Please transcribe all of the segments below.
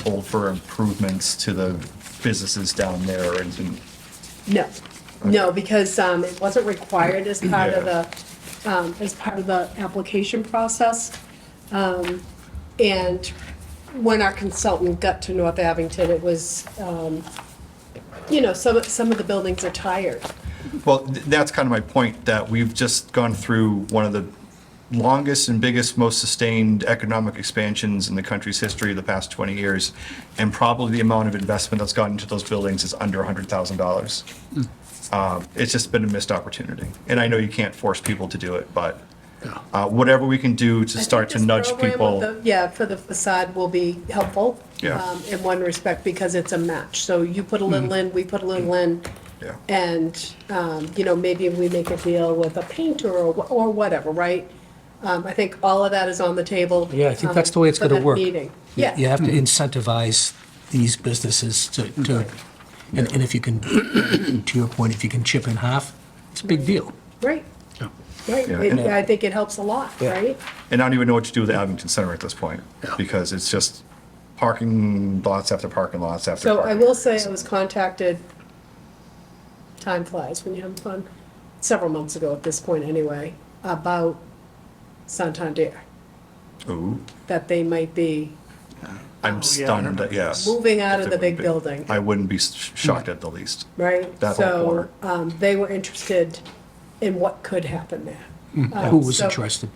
hold for improvements to the businesses down there or anything? No, no, because um, it wasn't required as part of Yeah. the, um, as part of the application process. Um, And when our consultant got to North Abington, it was, um, you know, some, some of the buildings are tired. Well, th- that's kind of my point, that we've just gone through one of the longest and biggest, most sustained economic expansions in the country's history the past 20 years, and probably the amount of investment that's gone into those buildings is under $100,000. Um, It's just been a missed opportunity, and I know you can't force people to do it, but uh, whatever we can do to start to This nudge program of people. the- Yeah, for the facade will be helpful. Yeah. um, In one respect, because it's a match. So you put a little in, we put a little in. Mm-hmm. Yeah. And, um, you know, maybe we make a deal with a painter or, wh- or whatever, right? Um, I think all of that is on the table. Yeah, I think um, that's the way it's for gonna that work. Meeting. You- Yeah. You have Hmm. to incentivize these businesses to, to, and, and if you can, to your point, if you can chip in half, it's a big deal. Right, right. Yeah, It- and- I think it helps a lot, Yeah. right? And I don't even know what to do with the Abington Center at this point, because it's just parking lots after parking lots after So parking. I will say I was contacted, time flies when you're having fun, several months ago at this point anyway, about Santander, Ooh. that they might be I'm stunned, that yes. moving out If of they the big would be. building, I wouldn't be sh- shocked at the least. right? That whole corner. So um, they were interested in what could happen there. Um, Who was so interested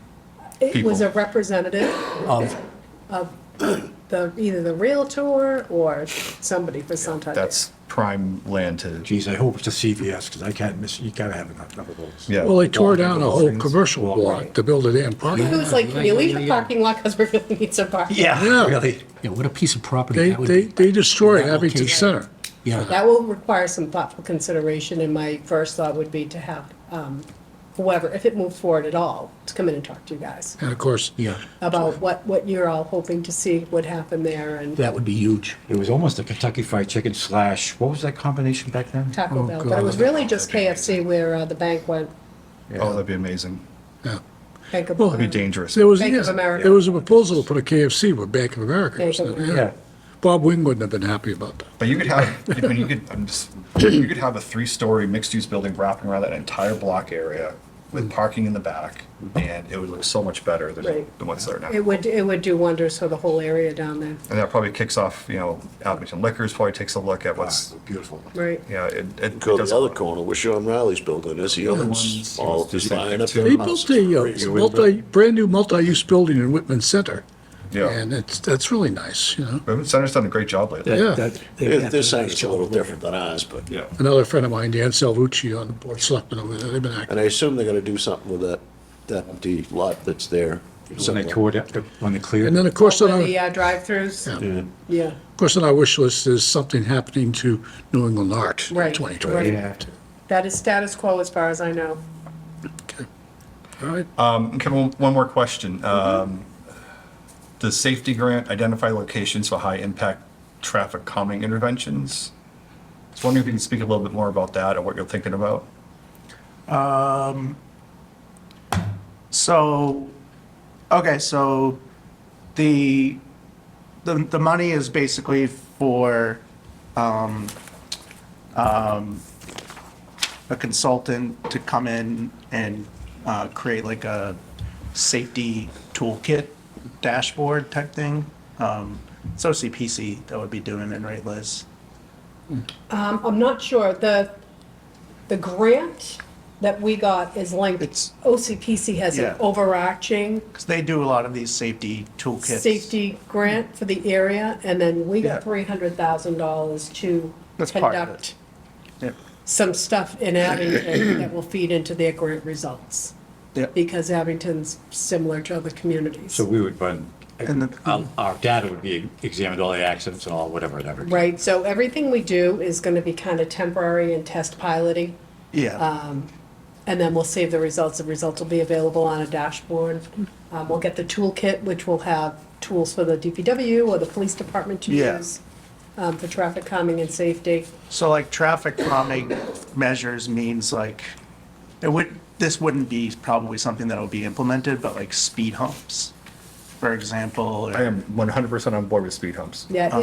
It was People. a representative, of, the, either the Realtor or somebody for Santander. That's prime land to, oh, Geez, I hope it's a CVS, because I can't miss, you gotta have enough of those. yeah. Well, they tore down a whole Walk-ins. commercial block to build it in. It parking. was like, can you leave the parking lot because we really need some parking? Yeah, Yeah. really. yeah, what a piece of property They, that would they, be. they destroyed That Abington location. Center. Yeah, That will require some thoughtful consideration, and my first thought would be to have um, whoever, if it moves forward at all, to come in and talk to you guys And of course, yeah, about what, what you're all hoping to see would happen there and that would be huge. It was almost a Kentucky Fried Chicken slash, what was that combination back then? Taco Oh, Bell. But it was God. really just KFC where uh, the bank went, Oh, that'd be amazing. Bank of, Well, um, Be dangerous. there was, Bank of yes, America. there was a proposal to put a KFC with Bank of America. Bank of Yeah. Yeah. Bob Wing wouldn't have been happy about that. But you could have, I mean, you could, I'm just, you could have a three-story mixed-use building wrapping around that entire block area with parking in the back, and it would look so much better than, Right. than what's there now. it would, it would do wonders for the whole area down there, And that probably kicks off, you know, Abington Liquors probably takes a look at what's, Beautiful. right? you know, it, it Go to does the a other lot. corner where Sean Riley's building is, the other one's all just lining up. They built a uh, multi, brand-new multi-use building in Whitman Center. Yeah. And it's, that's really nice, you know? Urban Center's done a great job lately. Yeah. Their their site is a little different than ours, but, Yeah. Another friend of mine, Dan Salvucci, on the board of selectmen over there, they've been active. and I assume they're gonna do something with that, that empty lot that's there. When they tore it, up, when they cleared And then, it. of course, on Where our, the uh, drive-throughs, Yeah. yeah, of course, on our wish list is something happening to New England art in Right, 2020. right. that is status quo as far as I know. All right. Kevin, one- one more question. Um, Does safety grant identify locations for high-impact traffic calming interventions? I was wondering if you could speak a little bit more about that and what you're thinking about. So, okay, so the, the, the money is basically for, um, um, a consultant to come in and, uh, create like a safety toolkit dashboard type thing. Um, it's OCPC that would be doing it, right, Liz? Um, I'm not sure, the, the grant that we got is linked, It's- OCPC has an Yeah. overarching Because they do a lot of these safety toolkits. safety grant for the area, and then we Yeah. got three hundred thousand dollars to That's part of conduct Yep. some stuff in Abington that will feed into their grant results, Yep. because Abington's similar to other communities, So we would run, And the- our our data would be examined, all the accidents and all, whatever, whatever. right? So everything we do is gonna be kind of temporary and test piloting, Yeah. and then we'll save the results. The results will be available on a dashboard. Um, We'll get the toolkit, which will have tools for the DPW or the police department to Yeah. use um, for traffic calming and safety. So like traffic calming measures means like, it would, this wouldn't be probably something that would be implemented, but like speed humps, for example. or- I am 100% on board with speed humps. Yeah,